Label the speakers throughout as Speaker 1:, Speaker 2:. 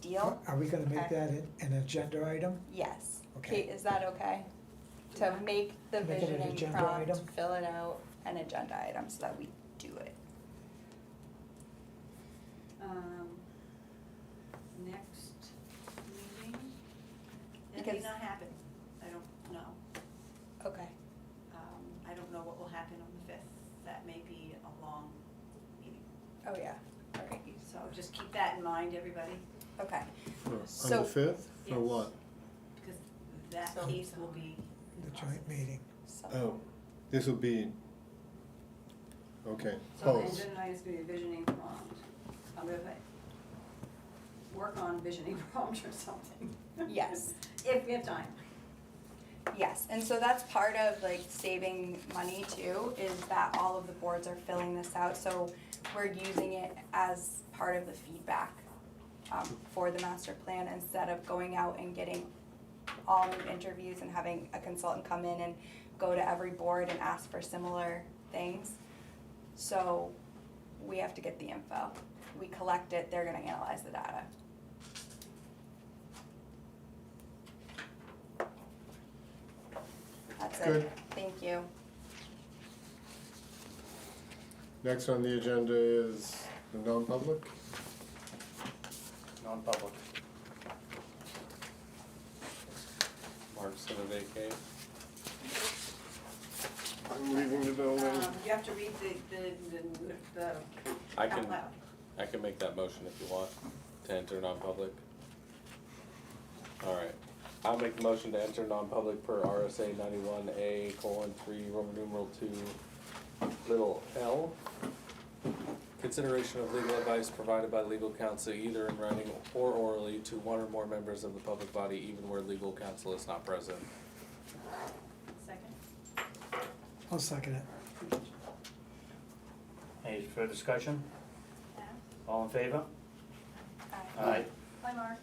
Speaker 1: deal.
Speaker 2: Are we gonna make
Speaker 1: Okay.
Speaker 2: that an, an agenda item?
Speaker 1: Yes.
Speaker 2: Okay.
Speaker 1: Kate, is that okay? To make the
Speaker 2: Make it an
Speaker 1: visioning
Speaker 2: agenda
Speaker 1: prompt,
Speaker 2: item?
Speaker 1: fill it out, an agenda item so that we do it.
Speaker 3: um, next meeting? It may
Speaker 1: Because-
Speaker 3: not happen, I don't know.
Speaker 1: Okay.
Speaker 3: Um, I don't know what will happen on the fifth, that may be a long meeting.
Speaker 1: Oh, yeah. All right.
Speaker 3: So just keep that in mind, everybody,
Speaker 1: Okay.
Speaker 4: For- On
Speaker 1: So-
Speaker 4: the fifth,
Speaker 3: Yes.
Speaker 4: for what?
Speaker 3: because that
Speaker 1: So-
Speaker 3: piece will be.
Speaker 2: The joint meeting,
Speaker 1: So-
Speaker 4: Oh, this will be, okay,
Speaker 3: So the
Speaker 4: pause.
Speaker 3: agenda item is gonna be visioning prompt, I'm gonna put- work on visioning prompt or something.
Speaker 1: Yes.
Speaker 3: If we have time.
Speaker 1: Yes, and so that's part of like saving money too, is that all of the boards are filling this out, so we're using it as part of the feedback um, for the master plan instead of going out and getting all new interviews and having a consultant come in and go to every board and ask for similar things. So we have to get the info. We collect it, they're gonna analyze the data. That's it.
Speaker 4: Good.
Speaker 1: Thank you.
Speaker 4: Next on the agenda is the non-public.
Speaker 5: Non-public. Mark's gonna vacate.
Speaker 4: I'm leaving the
Speaker 3: Um,
Speaker 4: building.
Speaker 3: you have to read the, the, the, the
Speaker 5: I
Speaker 3: out
Speaker 5: can,
Speaker 3: loud.
Speaker 5: I can make that motion if you want, to enter non-public. Alright, I'll make the motion to enter non-public per RSA ninety-one A colon three, Roman numeral two, little L. Consideration of legal advice provided by legal counsel either in writing or orally to one or more members of the public body, even where legal counsel is not present.
Speaker 3: Second?
Speaker 2: I'll second it.
Speaker 6: Any further discussion?
Speaker 3: Adam?
Speaker 6: All in favor?
Speaker 1: Aye.
Speaker 6: Aye.
Speaker 3: Hi, Mark.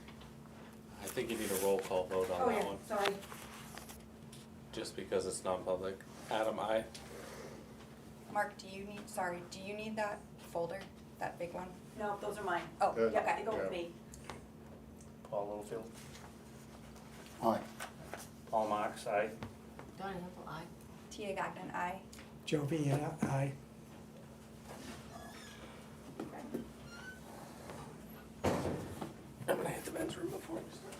Speaker 5: I think you need a roll call vote on
Speaker 3: Oh, yeah,
Speaker 5: that one,
Speaker 3: sorry.
Speaker 5: just because it's non-public. Adam, I,
Speaker 1: Mark, do you need, sorry, do you need that folder, that big one?
Speaker 3: No, those are mine.
Speaker 1: Oh,
Speaker 4: Uh,
Speaker 3: Yeah,
Speaker 1: okay.
Speaker 3: they go with
Speaker 4: Yeah.
Speaker 3: me.
Speaker 6: Paul Littlefield?
Speaker 7: Aye.
Speaker 6: Paul Marks, aye.
Speaker 8: Donna Hill, aye.
Speaker 1: Tia Gagnon, aye.
Speaker 2: Joe Vienna, aye.
Speaker 5: I'm gonna hit the men's room before we start.